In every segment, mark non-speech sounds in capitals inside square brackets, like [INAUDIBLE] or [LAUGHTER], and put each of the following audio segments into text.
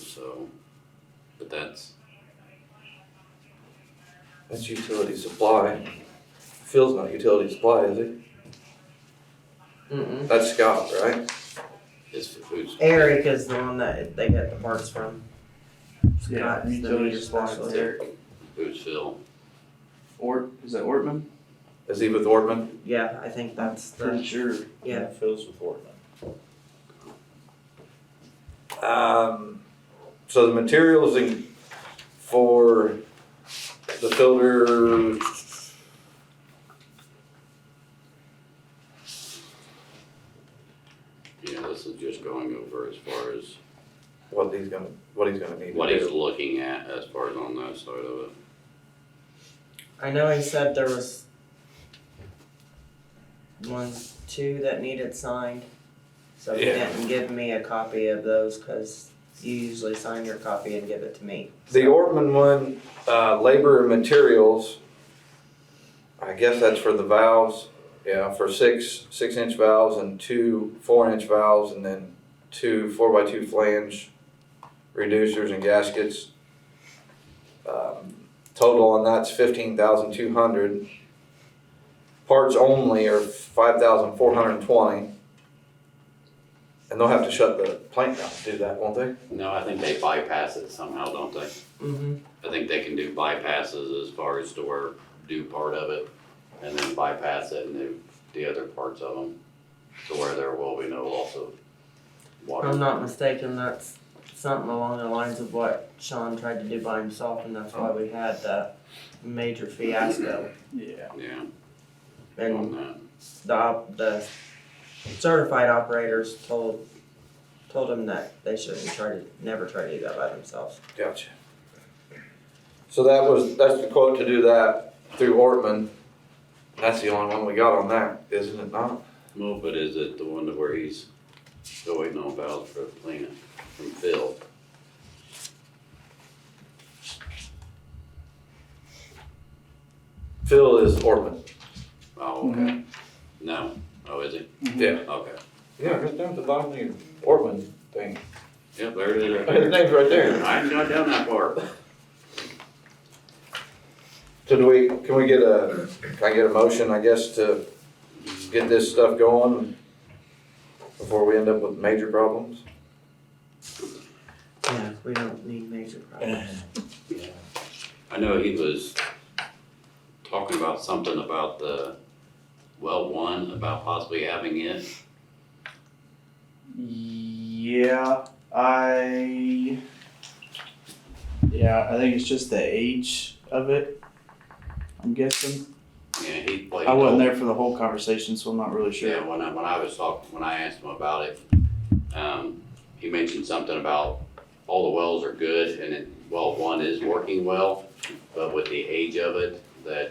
so, but that's, That's utility supply. Phil's not utility supply, is he? Mm-mm. That's Scott, right? it's for food. supply. Eric is the one that they get the parts from. Yeah, Scott's the utility meter supplies, specialist. Eric. Who's Phil? Or, is that Ortman? Is he with Ortman? Yeah, I think that's Pretty the, sure. yeah. Phil's with Ortman. Um, so the materials in, for the filter. Yeah, this is just going over as far as What he's gonna, what he's gonna need what to he's do. looking at as far as on that side of it. I know he said there was one, two that needed signed. So he Yeah. didn't give me a copy of those because you usually sign your copy and give it to me. The Ortman one, uh, labor and materials. I guess that's for the valves, yeah, for six, six inch valves and two four inch valves and then two four by two flange reducers and gaskets. Um, total on that's fifteen thousand two hundred. Parts only are five thousand four hundred and twenty. And they'll have to shut the plant down to do that, won't they? No, I think they bypass it somehow, don't they? Mm-hmm. I think they can do bypasses as far as to where, do part of it, and then bypass it and do the other parts of them, to where there will be no loss of If water. I'm not mistaken, that's something along the lines of what Sean tried to do by himself and that's why we had the major fiasco. Yeah. Yeah, And on that. the op, the certified operators told told them that they shouldn't try to never try to do that by themselves. Gotcha. So that was, that's the quote to do that through Ortman. That's the only one we got on that, isn't it not? Well, but is it the one to where he's still waiting on valves for the plant from Phil? Phil is Ortman. Oh, Mm-hmm. okay. No, oh, is it? Yeah. Okay. Yeah, just down at the bottom of your Ortman thing. Yep, there it is. [LAUGHS] His right name's right there. there. I hadn't got down that far. So do we, can we get a, can I get a motion, I guess, to get this stuff going before we end up with major problems? Yeah, we don't need major problems. I know he was talking about something about the well one, about possibly having it. Yeah, I. Yeah, I think it's just the age of it. I'm guessing. Yeah, he played. I wasn't there for the whole conversation, so I'm not really Yeah, sure. when I, when I was talking, when I asked him about it, um, he mentioned something about all the wells are good and it, well, one is working well, but with the age of it, that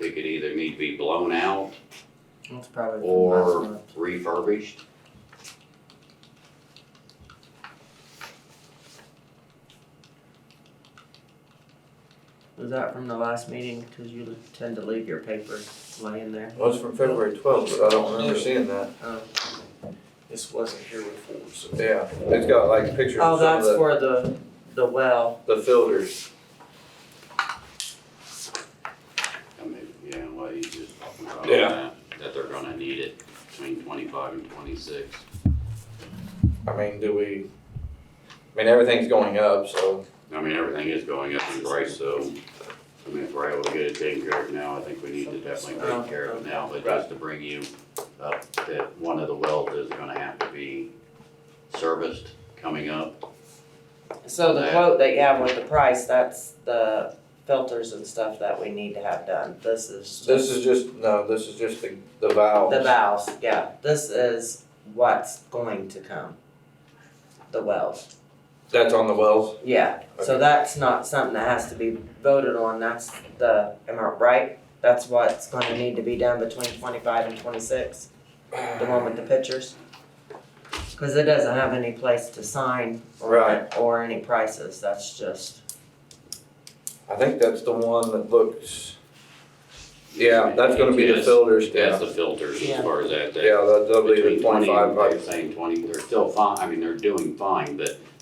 it could either need to be blown out That's probably from last or month. refurbished. Was that from the last meeting? Cause you tend to leave your paper laying there. Well, it's from February twelfth, but I don't remember seeing that. Um, This wasn't here before, so. Yeah, it's got like pictures oh, of some of that's the, for the the well. the filters. I mean, yeah, what he just talking about, Yeah. that, that they're gonna need it between twenty-five and twenty-six. I mean, do we, I mean, everything's going up, so I mean, everything is going up in price, so, I mean, if we're able to get it taken care of now, I think we need to definitely take care of it now, but just to bring you up, that one of the wells is gonna have to be serviced coming up. So the Yeah. quote that you have with the price, that's the filters and stuff that we need to have done. This is This is just, no, this is just the, the valves. The valves, yeah, this is what's going to come. The wells, That's on the wells? yeah, so Okay. that's not something that has to be voted on, that's the, am I right? That's what's gonna need to be done between twenty-five and twenty-six, the one with the pictures. Cause it doesn't have any place to sign or, Right. or any prices, that's just, I think that's the one that looks, yeah, that's gonna be the Yes, filters, That's yeah. the filters Yeah. as far as that, that. Yeah, that- that'll be the between 20 twenty-five, They're saying twenty, they're still fine, I mean, they're doing fine, but